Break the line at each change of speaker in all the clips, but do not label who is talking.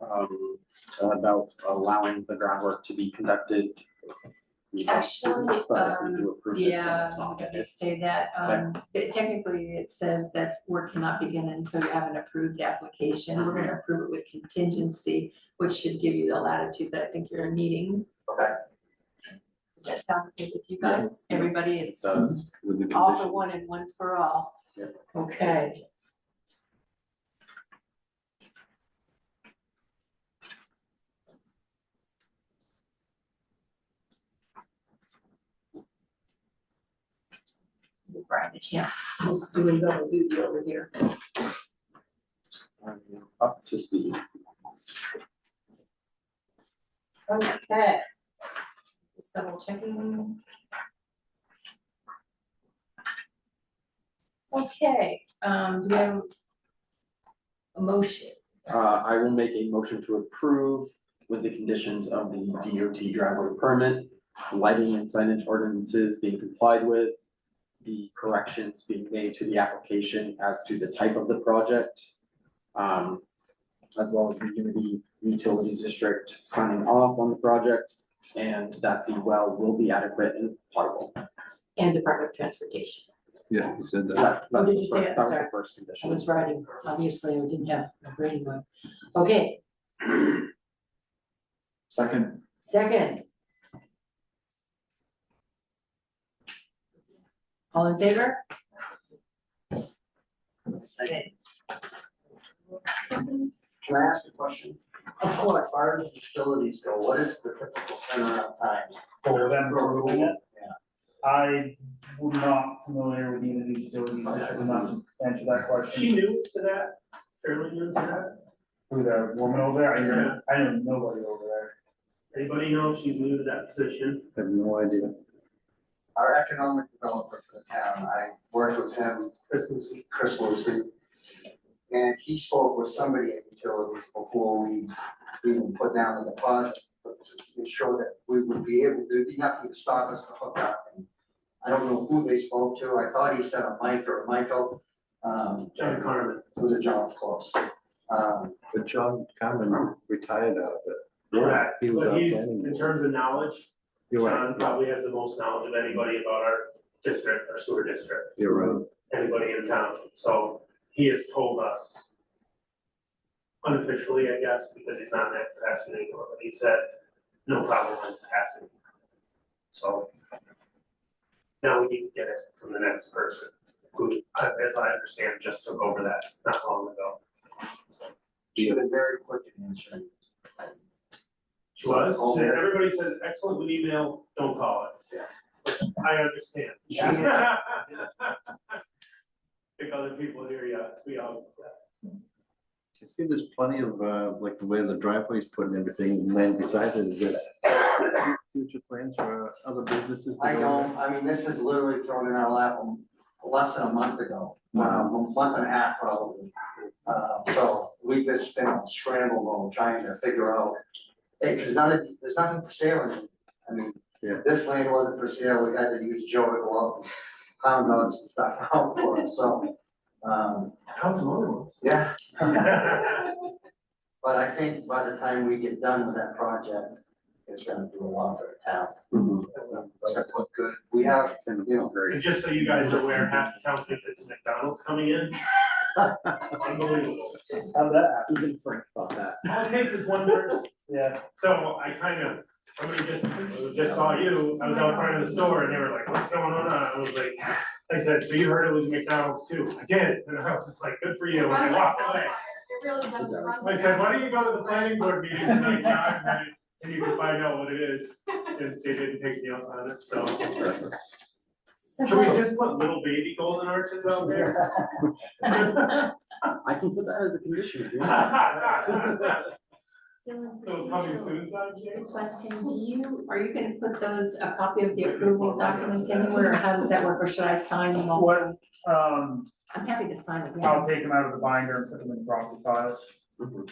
um, about allowing the groundwork to be conducted. We have to,
Actually, um,
But if we do approve this, then
Yeah,
it's not.
I did say that, um, but technically it says that work cannot begin until you have an approved application. We're
Mm-hmm.
gonna approve it with contingency, which should give you the latitude that I think you're needing.
Okay.
Does that sound okay with you
Yeah.
guys? Everybody,
It
it's
says with the
all for
condition.
one and one for all.
Yeah.
Okay. Give Brian a chance, he's doing double duty over here.
Up to speed.
Okay. Just double checking. Okay, um, do we have a motion?
Uh, I will make a motion to approve with the conditions of the DOT driveway permit, lighting and signage ordinances being complied with, the corrections being made to the application as to the type of the project, um, as well as the Unity Utilities District signing off on the project, and that the well will be adequate and potable.
And Department of Transportation.
Yeah, you said that.
That- that was
did
the
you say?
fir-
I'm
That was the
sorry.
first
I
condition.
was writing, obviously, I didn't have a grading one. Okay,
Second.
second. All in favor? Okay,
Can I ask a question?
Of course.
As far as facilities go, what is the typical turnaround time?
for them to
For
rule.
that?
I would not familiar with either of these utilities, I would not answer that question. She knew to that, fairly new to that? Who, the woman over there, I know, I know nobody over there. Anybody know if she's new to that position?
I have no idea.
Our economic developer for the town, I worked with him,
Chris Lucy.
Chris Lucy. And he spoke with somebody at utilities before we even put down the deposit, but to ensure that we would be able, there'd be nothing to stop us to hook up. And I don't know who they spoke to, I thought he said a Mike or a Michael, um.
John Carmen.
It was a John, of course. Um,
But John Carmen retired out of it.
Correct,
He was
but
out
he's,
planning
in
board.
terms of knowledge,
You're
John
right,
probably has the most knowledge of anybody about our district, our sewer district,
you're right.
anybody in town. So he has told us unofficially, I guess, because he's not in that capacity anymore, but he said, no problem with passing. So now we need to get it from the next person, who, uh, as I understand, just took over that not long ago. So
she was very quick in answering.
She was, and everybody says excellent with email, don't call it.
Yeah.
I understand.
She answered
Think other people here, yeah, we all,
You see, there's plenty of, uh, like the way the driveway's put and everything, and then besides it, is there future plans for other businesses? to
I
go
don't, I mean, this is literally thrown in our lap um, less than a month ago, um, a month and a half probably. Uh, so we've just been on scramble mode trying to figure out, because none of, there's nothing for sale in it. I mean,
Yeah.
this land wasn't for sale, we had to use Joe to go out and pound dogs and stuff out for it, so. Um,
I found some other ones.
yeah, but I think by the time we get done with that project, it's gonna do a lot for the town.
Mm-hmm.
It's gonna look good, we have, you know,
And just so you guys are aware, half the town thinks it's McDonald's coming in. Unbelievable.
How that Even Frank thought that.
All it takes is one person. Yeah. So I kind of, somebody just, just saw you, I was out front of the store and they were like, what's going on? I was like, I said, so you heard it was McDonald's too? I did. And I was just like, good for you. And I walked away.
It really does run
I said, why don't you go to the planning board meeting tonight, John, and- and you can find out what it is. And they didn't take me up on it, so. Can we just put little baby golden arches out there?
I can put that as a condition if you want.
Little
Dylan,
coming
procedural
soon sign, Jay?
question, do you, are you gonna put those, a copy of the approval documents anywhere, or how does that work, or should I sign them also?
What, um,
I'm happy to sign it, yeah.
I'll take them out of the binder and put them in property files.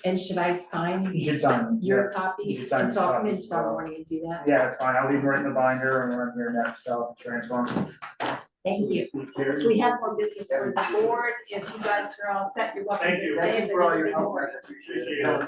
and should I sign
You should sign them.
your
you
copy?
should sign
And so I'll come in
your copy.
tomorrow morning and do that,
Yeah, it's fine. I'll leave them right in the binder and we're in here next, I'll transfer them.
thank you. We have more business for the board, if you guys are all set, you're welcome to
Thank you.
stay.
Thank you for all your help, I appreciate it.
Appreciate it.